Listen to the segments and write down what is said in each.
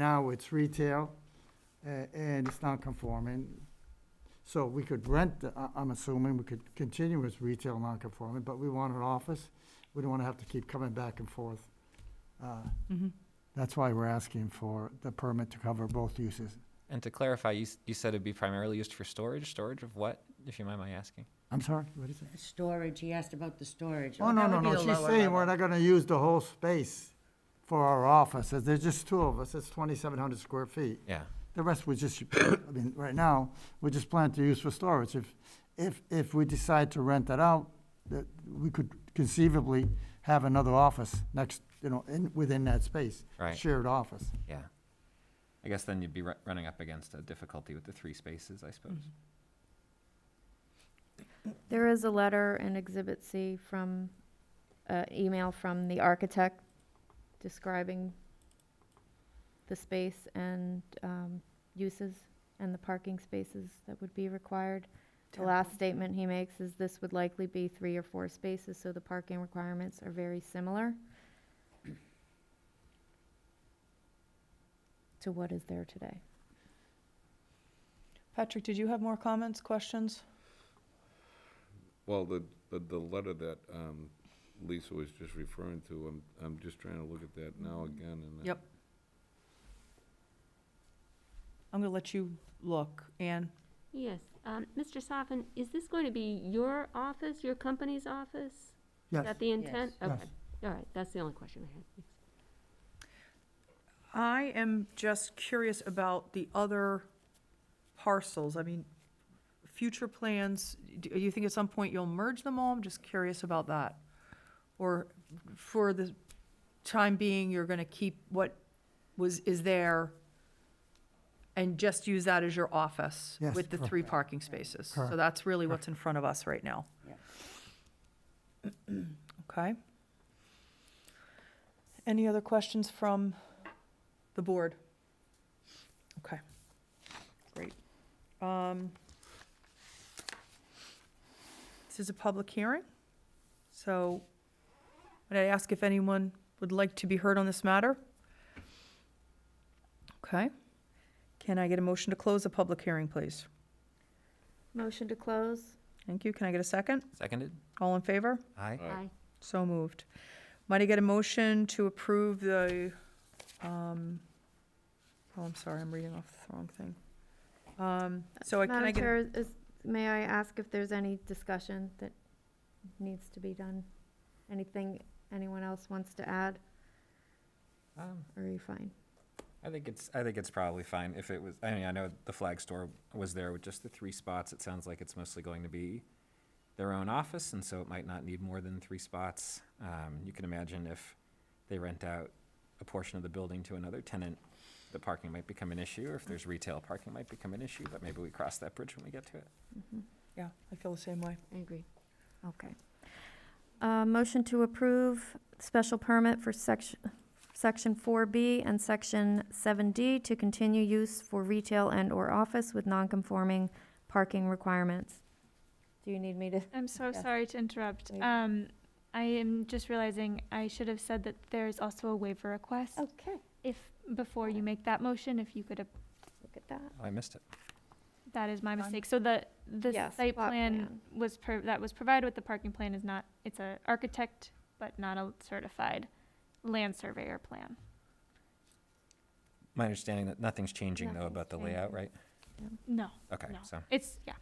Now it's retail, a- and it's non-conforming. So we could rent, the- I- I'm assuming, we could continue as retail non-conforming, but we want an office. We don't want to have to keep coming back and forth. Uh, Mhm. That's why we're asking for the permit to cover both uses. And to clarify, you, s- you said it'd be primarily used for storage. Storage of what, if you mind my asking? I'm sorry, what is it? Storage, he asked about the storage. Oh, no, that no, would be no, the she's lower saying we're level. not gonna use the whole space for our office, If there's just two of us, it's twenty-seven hundred square feet. Yeah. The rest we just, I mean, right now, we just plan to use for storage. If, if, if we decide to rent that out, that, we could conceivably have another office next, you know, in, within that space. Right. Shared office. Yeah. I guess then you'd be ru- running up against a difficulty with the three spaces, I suppose. There is a letter in Exhibit C from, uh, email from the architect describing the space and, um, uses and the parking spaces that would be required. The last statement he makes is this would likely be three or four spaces, so the parking requirements are very similar to what is there today. Patrick, did you have more comments, questions? Well, the, the, the letter that, um, Lisa was just referring to, I'm, I'm just trying to look at that now again and. I- Yep. I'm gonna let you look. Anne, Yes, um, Mr. Soffin, is this going to be your office, your company's office? Is Yes, that the intent? Yes. Okay, all right, that's the only question I had. I am just curious about the other parcels. I mean, future plans, do you think at some point you'll merge them all? I'm just curious about that. Or for the time being, you're gonna keep what was, is there and just use that as your office Yes, with the three parking spaces? So Correct. that's really what's in front of us right now. Yeah. Okay. Any other questions from the board? Okay, great. Um, This is a public hearing, so would I ask if anyone would like to be heard on this matter? Okay. Can I get a motion to close the public hearing, please? Motion to close? Thank you. Can I get a second? Seconded? All in favor? Aye. Aye. Aye. So moved. Might I get a motion to approve the, um, oh, I'm sorry, I'm reading off the wrong thing. Um, so I, can I Madam get, a- Chair, is- may I ask if there's any discussion that needs to be done? Anything anyone else wants to add, Um, or are you fine? I think it's, I think it's probably fine if it was, I mean, I know the flag store was there with just the three spots. It sounds like it's mostly going to be their own office, and so it might not need more than three spots. Um, you can imagine if they rent out a portion of the building to another tenant, the parking might become an issue, or if there's retail, parking might become an issue, but maybe we cross that bridge when we get to it. yeah, I feel the same way. I agree. Okay. Uh, motion to approve special permit for section, section four B and section seven D to continue use for retail and/or office with non-conforming parking requirements. Do you need me to? I'm so Yeah. sorry to interrupt. Wait. Um, I am just realizing I should have said that there's also a waiver request. Okay. If, before you make that motion, if you could, ap- Look at that. Oh, I missed it. that is my Fine. mistake. So the, the Yes, site plot plan plan. was per, that was provided with the parking plan is not, it's a architect, but not a certified land surveyor plan. My understanding that nothing's changing though about the Nothing's layout, right? No, Okay, No. so. it's, yeah.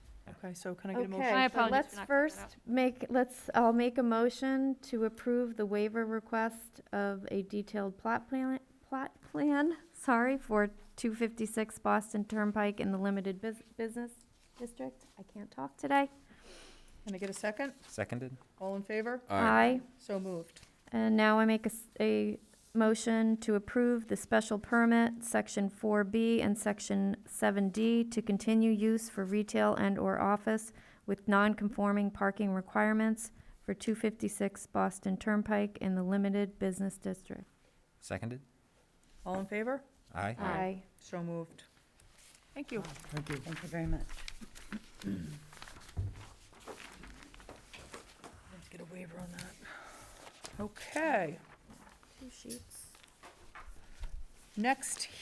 Okay, so can I get a motion? Okay, so apologies for let's not clearing that first make, let's, I'll make a motion to approve the waiver request of a detailed plot plan, plot plan, sorry, for two fifty-six Boston Turnpike in the limited bus- business district. I can't talk today. Can I get a second? Seconded? All in favor? Aye. So moved. And now I make a, s- a motion to approve the special permit, section four B and section seven D, to continue use for retail and/or office with non-conforming parking requirements for two fifty-six Boston Turnpike in the limited business district. Seconded? All in favor? Aye. Aye. So moved. Thank you. Thank you. Thank you very much. Let's get a waiver on that. Okay, Two sheets. next